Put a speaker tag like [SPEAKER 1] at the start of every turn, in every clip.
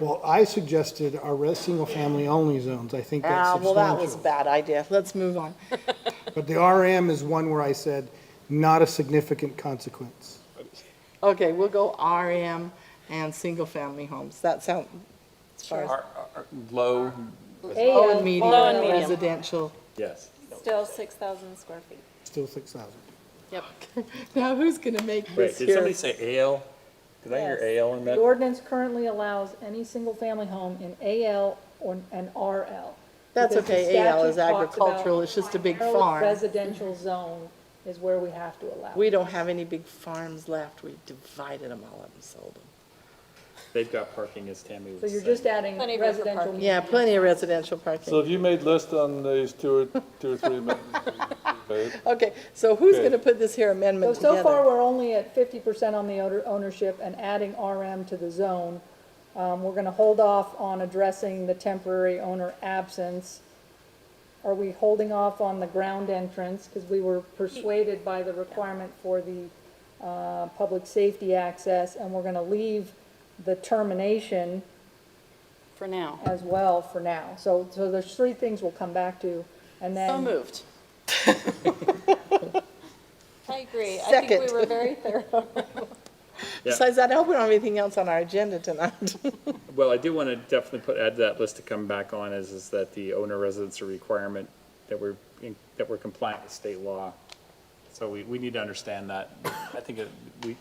[SPEAKER 1] Well, I suggested our res, single-family only zones, I think that's
[SPEAKER 2] Ah, well,
[SPEAKER 1] substantial.
[SPEAKER 2] that was a bad idea. Let's move on.
[SPEAKER 1] But the RM is one where I said, not a significant consequence.
[SPEAKER 2] Okay, we'll go RM and single-family homes. That sound, as far as,
[SPEAKER 3] Are- are- Low,
[SPEAKER 2] low and medium
[SPEAKER 4] Low and um, medium.
[SPEAKER 2] residential.
[SPEAKER 3] yes.
[SPEAKER 4] Still 6,000 square feet.
[SPEAKER 1] Still 6,000.
[SPEAKER 4] Yep.
[SPEAKER 2] Now, who's going to make
[SPEAKER 3] Wait,
[SPEAKER 2] this
[SPEAKER 3] did somebody
[SPEAKER 2] here?
[SPEAKER 3] say ale? Did I hear
[SPEAKER 5] Yes.
[SPEAKER 3] ale in
[SPEAKER 5] The
[SPEAKER 3] that?
[SPEAKER 5] ordinance currently allows any single-family home in AL or an RL.
[SPEAKER 2] That's
[SPEAKER 5] Because the
[SPEAKER 2] okay, AL is
[SPEAKER 5] statute talks about
[SPEAKER 2] agricultural, it's just a big
[SPEAKER 5] primarily
[SPEAKER 2] farm.
[SPEAKER 5] Residential zone is where we have to allow.
[SPEAKER 2] We don't have any big farms left. We divided them all up and sold them.
[SPEAKER 3] They've got parking, as Tammy
[SPEAKER 5] So
[SPEAKER 3] was
[SPEAKER 5] you're
[SPEAKER 3] saying.
[SPEAKER 5] just adding
[SPEAKER 4] Plenty of room for
[SPEAKER 5] residential.
[SPEAKER 4] parking.
[SPEAKER 2] Yeah, plenty of residential
[SPEAKER 6] So
[SPEAKER 2] parking.
[SPEAKER 6] if you made list on these two or, two or three minutes,
[SPEAKER 2] Okay, so who's
[SPEAKER 6] Okay.
[SPEAKER 2] going to put this here
[SPEAKER 5] So,
[SPEAKER 2] amendment
[SPEAKER 5] so far,
[SPEAKER 2] together?
[SPEAKER 5] we're only at fifty percent on the owner- ownership and adding RM to the zone. Um, we're gonna hold off on addressing the temporary owner absence. Are we holding off on the ground entrance? Because we were persuaded by the requirement for the, uh, public safety access, and we're gonna leave the termination
[SPEAKER 4] For now.
[SPEAKER 5] as well for now. So, so there's three things we'll come back to, and then.
[SPEAKER 2] So moved.
[SPEAKER 4] I agree. I think
[SPEAKER 2] Second.
[SPEAKER 4] we were very thorough.
[SPEAKER 3] Yeah.
[SPEAKER 2] Besides that, I hope we don't have anything else on our agenda tonight.
[SPEAKER 3] Well, I do want to definitely put, add to that list to come back on is, is that the owner residence are requirement that we're, in- that we're compliant with state law. So we, we need to understand that. I think it, we,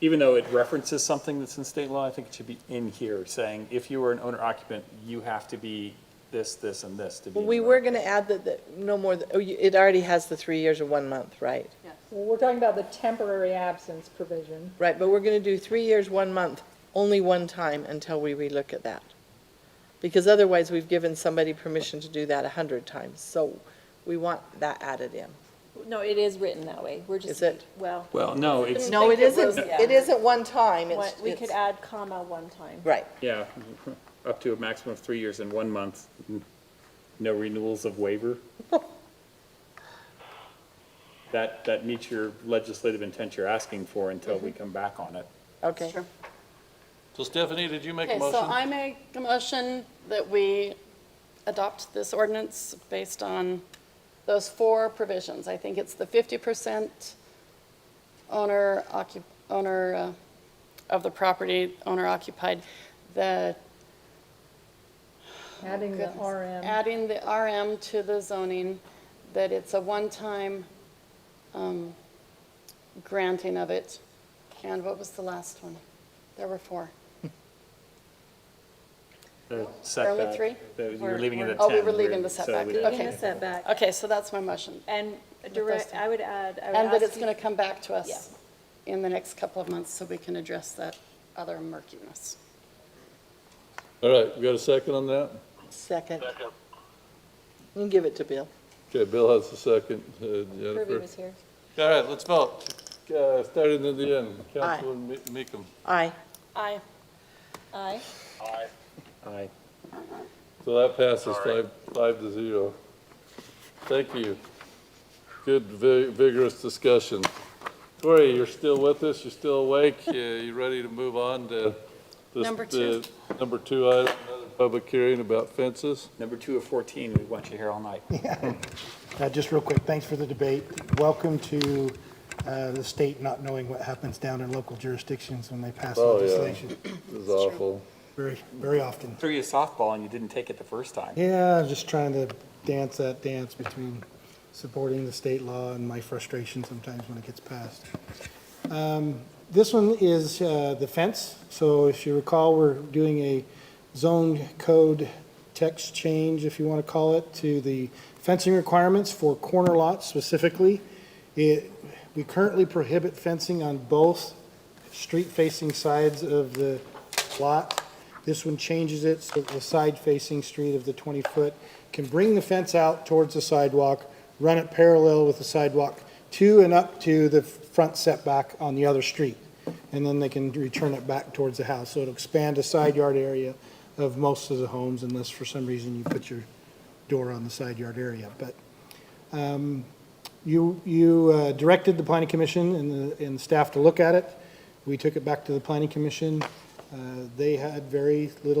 [SPEAKER 3] even though it references something that's in state law, I think it should be in here saying, if you are an owner occupant, you have to be this, this, and this to be.
[SPEAKER 2] Well,
[SPEAKER 3] in
[SPEAKER 2] We
[SPEAKER 3] the
[SPEAKER 2] were
[SPEAKER 3] right.
[SPEAKER 2] going to add that, that no more, th- oh, you- it already has the three years or one month, right?
[SPEAKER 5] Well, we're talking about the temporary absence provision.
[SPEAKER 2] Right, but we're going to do three years, one month, only one time until we relook at that. Because otherwise, we've given somebody permission to do that a hundred times, so we want that added in.
[SPEAKER 4] No, it is written that way. We're just.
[SPEAKER 2] Is it?
[SPEAKER 4] Well,
[SPEAKER 3] Well, no, it's,
[SPEAKER 2] No, it
[SPEAKER 4] think it was,
[SPEAKER 2] isn't,
[SPEAKER 4] yeah.
[SPEAKER 2] it isn't one time, it's,
[SPEAKER 4] what- we could
[SPEAKER 2] it's-
[SPEAKER 4] add comma one time.
[SPEAKER 2] right,
[SPEAKER 3] yeah, up to a maximum of three years and one month, no renewals of waiver. That, that meets your legislative intent you're asking for until we come back on it.
[SPEAKER 2] okay.
[SPEAKER 6] So Stephanie, did you make a
[SPEAKER 7] Okay, so
[SPEAKER 6] motion?
[SPEAKER 7] I make a motion that we adopt this ordinance based on those four provisions. I think it's the fifty percent owner occup, owner uh, of the property, owner occupied, the.
[SPEAKER 5] Adding the
[SPEAKER 7] goodness,
[SPEAKER 5] RM.
[SPEAKER 7] Adding the RM to the zoning, that it's a one-time um, granting of it. And what was the last one? There were four.
[SPEAKER 3] The setback,
[SPEAKER 7] three?
[SPEAKER 3] the- You were leaving it at
[SPEAKER 7] Oh,
[SPEAKER 3] 10.
[SPEAKER 7] we were leaving the
[SPEAKER 3] so
[SPEAKER 7] setback.
[SPEAKER 3] we'd-
[SPEAKER 7] Okay.
[SPEAKER 4] Leaving the setback.
[SPEAKER 7] Okay, so that's my motion.
[SPEAKER 4] And direct, I would add, I would
[SPEAKER 7] And that it's
[SPEAKER 4] ask
[SPEAKER 7] going to come back to
[SPEAKER 4] Yeah.
[SPEAKER 7] us in the next couple of months so we can address that other murkiness.
[SPEAKER 6] All right, you got a second on that?
[SPEAKER 2] Second. You can give it to Bill.
[SPEAKER 6] Okay, Bill has a second, uh,
[SPEAKER 4] Ruby
[SPEAKER 6] Jennifer.
[SPEAKER 4] was here.
[SPEAKER 6] All right, let's vote. Uh, starting at the end,
[SPEAKER 2] Aye.
[SPEAKER 6] Councilman Me- Meekum.
[SPEAKER 2] Aye.
[SPEAKER 7] Aye.
[SPEAKER 4] Aye.
[SPEAKER 3] Aye.
[SPEAKER 6] So that passes five, five to zero. Thank you. Good vi- vigorous discussion. Corey, you're still with us, you're still awake, you, you ready to move on to? this-
[SPEAKER 7] Number two.
[SPEAKER 6] the Number two, item, another public hearing about fences.
[SPEAKER 3] Number two of 14, we want you here all night.
[SPEAKER 8] Uh, Just real quick, thanks for the debate. Welcome to uh, the state not knowing what happens down in local jurisdictions when they pass
[SPEAKER 6] Oh, yeah.
[SPEAKER 8] legislation.
[SPEAKER 6] This is awful.
[SPEAKER 8] Very, very often.
[SPEAKER 3] Threw you a softball and you didn't take it the first time.
[SPEAKER 8] Yeah, just trying to dance that dance between supporting the state law and my frustration sometimes when it gets passed. Um, This one is uh, the fence. So if you recall, we're doing a zone code text change, if you want to call it, to the fencing requirements for corner lots specifically. It, we currently prohibit fencing on both street-facing sides of the lot. This one changes it so that the side-facing street of the 20-foot can bring the fence out towards the sidewalk, run it parallel with the sidewalk to and up to the front setback on the other street. And then they can return it back towards the house. So it'll expand the side yard area of most of the homes unless for some reason you put your door on the side yard area. But um, you, you uh, directed the planning commission and the, and staff to look at it. We took it back to the planning commission. Uh, They had very little